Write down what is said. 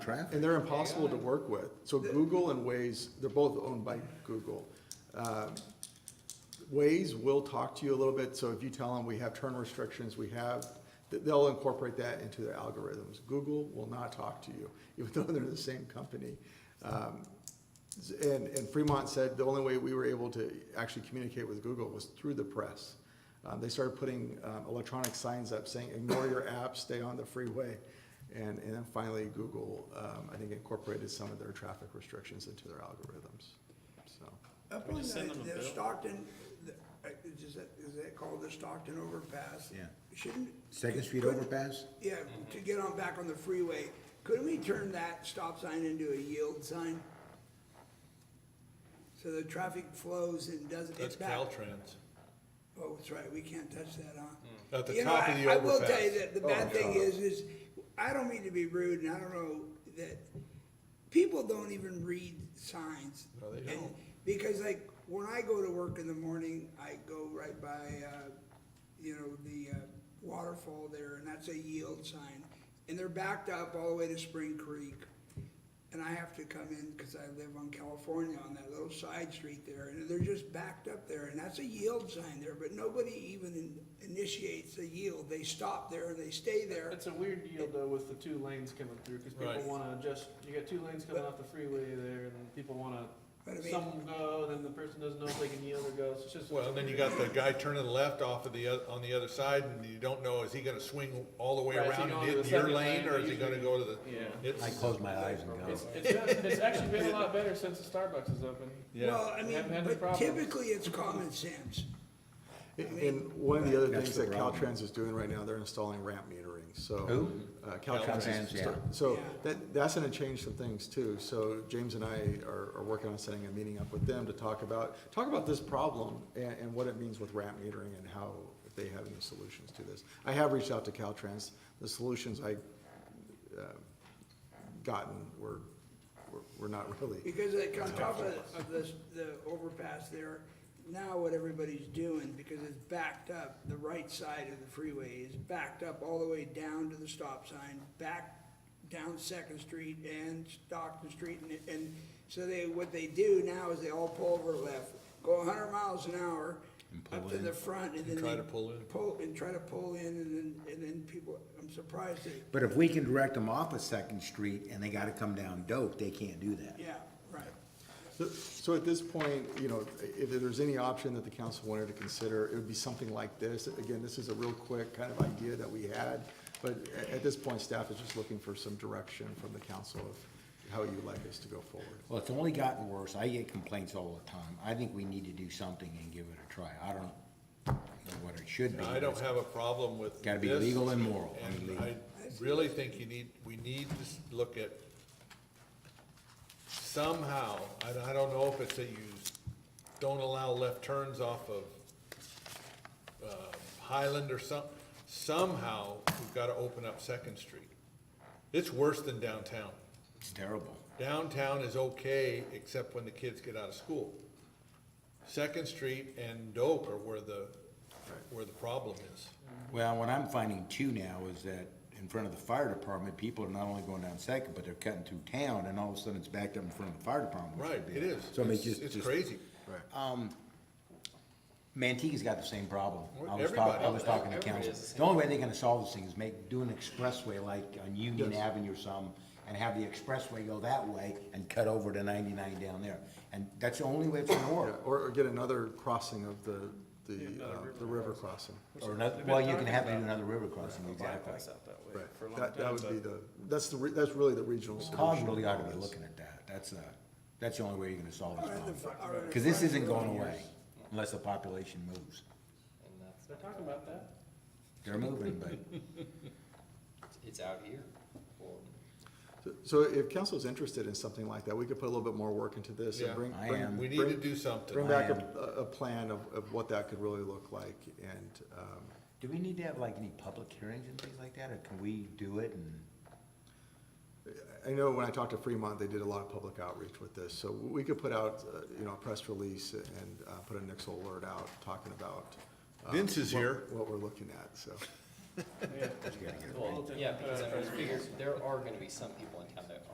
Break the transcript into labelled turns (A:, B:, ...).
A: traffic.
B: And they're impossible to work with. So Google and Waze, they're both owned by Google. Um, Waze will talk to you a little bit, so if you tell them we have turn restrictions, we have, th- they'll incorporate that into their algorithms. Google will not talk to you, even though they're the same company. Um, s- And, and Fremont said the only way we were able to actually communicate with Google was through the press. Um, They started putting um, electronic signs up saying, ignore your app, stay on the freeway. And, and then finally, Google, um, I think incorporated some of their traffic restrictions into their algorithms, so.
C: Up
D: We
C: on
D: just send them a
C: the, the
D: bill.
C: Stockton, the- uh, is that, is that called the Stockton overpass?
A: Yeah.
C: Shouldn't,
A: Second Street overpass?
C: yeah, to get on back on the freeway, couldn't we turn that stop sign into a yield sign? So the traffic flows and doesn't
D: That's
C: get back.
D: Caltrans.
C: Oh, that's right, we can't touch that, huh?
D: Hmm. At the
C: You know,
D: top of
C: I-
D: the
C: I will tell you
D: overpass.
C: that the
A: Oh,
C: bad thing is, is I don't mean to be rude and I don't know that people don't even read signs.
D: No, they
C: And-
D: don't.
C: Because like when I go to work in the morning, I go right by, uh, you know, the uh, waterfall there and that's a yield sign. And they're backed up all the way to Spring Creek. And I have to come in because I live on California on that little side street there, and they're just backed up there, and that's a yield sign there, but nobody even in- initiates a yield. They stop there, they stay there.
E: It's a weird deal though with the two lanes coming through, cause people
D: Right.
E: wanna just, you got two lanes coming off the freeway there and people wanna,
C: But I mean-
E: some will go, and then the person doesn't know if they can yield or go, so it's just.
D: Well, then you got the guy turning left off of the, oth- on the other side, and you don't know, is he gonna swing all the way
E: Right, is he
D: around and
E: going to
D: hit
E: the
D: your
E: second
D: lane,
E: lane?
D: or is he gonna
E: Usually-
D: go to the?
E: Yeah.
D: It's-
A: I close my eyes and go.
E: It's, it's, been- it's actually been a lot better since the Starbucks is open.
D: Yeah,
C: Well, I mean,
E: Haven't had any
C: but
E: problems.
C: typically it's common sense.
B: And- And one of the other
A: That's
B: things
A: the
B: that
A: problem.
B: Caltrans is doing right now, they're installing ramp metering, so.
A: Who?
B: uh, Caltrans
A: Caltrans,
B: is,
A: yeah.
B: so
C: Yeah.
B: that, that's gonna change some things too. So James and I are, are working on setting a meeting up with them to talk about, talk about this problem and, and what it means with ramp metering and how, if they have any solutions to this. I have reached out to Caltrans. The solutions I, uh, gotten were, were- were not really,
C: Because like on top of, of this, the overpass there, now what everybody's doing, because it's backed up, the right side of the freeway is backed up all the way down to the stop sign, back down Second Street and Stockton Street, and, and so they, what they do now is they all pull over left, go hundred miles an hour up to the front, and then
D: try
C: they
D: to pull in.
C: Pull, and try to pull in, and then, and then people, I'm surprised they,
A: But if we can direct them off of Second Street and they gotta come down Doak, they can't do that.
C: yeah, right.
B: So- So at this point, you know, if there's any option that the council wanted to consider, it would be something like this. Again, this is a real quick kind of idea that we had, but a- at this point, staff is just looking for some direction from the council of how you'd like us to go forward.
A: Well, it's only gotten worse. I get complaints all the time. I think we need to do something and give it a try. I don't know what it should be.
D: I don't have a problem with.
A: Gotta be
D: this,
A: legal and moral. I mean,
D: And
A: legal.
D: I really think you need, we need to s- look at somehow, I, I don't know if it's that you don't allow left turns off of, uh, Highland or some, somehow, we've gotta open up Second Street. It's worse than downtown.
A: It's terrible.
D: Downtown is okay, except when the kids get out of school. Second Street and Doak are where the, where the problem is.
A: Well, what I'm finding too now is that in front of the fire department, people are not only going down Second, but they're cutting through town and all of a sudden it's backed up in front of the fire department. which
D: Right,
A: would be-
D: it is.
A: So I mean,
D: It's-
A: just.
D: It's
A: just-
D: crazy.
A: Manteca's got the same problem. I was
D: Everybody.
A: talking, I was talking to
E: Everybody
A: council.
E: has the same
A: The only way they're gonna solve this thing is make, do an expressway like on Union Avenue or some, and have the expressway go that way and cut over to ninety-nine down there. And that's the only way it's gonna
B: Yeah,
A: work.
B: Or or get another crossing of the, the,
E: another
B: uh,
E: river
B: the river crossing.
A: Or another,
E: They've been
A: well, you can
E: talking
A: have to do
E: about
A: another river crossing,
E: a
A: exactly.
E: bypass out that way
B: Right.
E: for a long
B: That, that
E: time,
B: would
E: but-
B: be the, that's the, re- that's really the regional solution.
A: Cog really ought to be looking at that. That's, uh, that's the only way you're gonna solve this problem. Cause this isn't going away unless the population moves.
F: And that's,
E: They're talking about that.
A: They're moving, but
F: it's out here. Or
B: So- So if council's interested in something like that, we could put a little bit more work into this and
D: Yeah.
B: bring.
A: I
B: bring-
A: am.
D: We need
B: bring-
D: to do
B: Bring
D: something.
B: back
A: I
B: a, a a plan of, of what that could really look like and, um,
A: do we need to have like any public hearings and things like that, or can we do it and?
B: I know when I talked to Fremont, they did a lot of public outreach with this, so we could put out, uh, you know, a press release and, uh, put a Nixle alert out talking about. um,
D: Vince is
B: what-
D: here.
B: What we're looking at, so.
E: Yeah. Well,
F: Yeah, because I mean, figure there are gonna be some people in town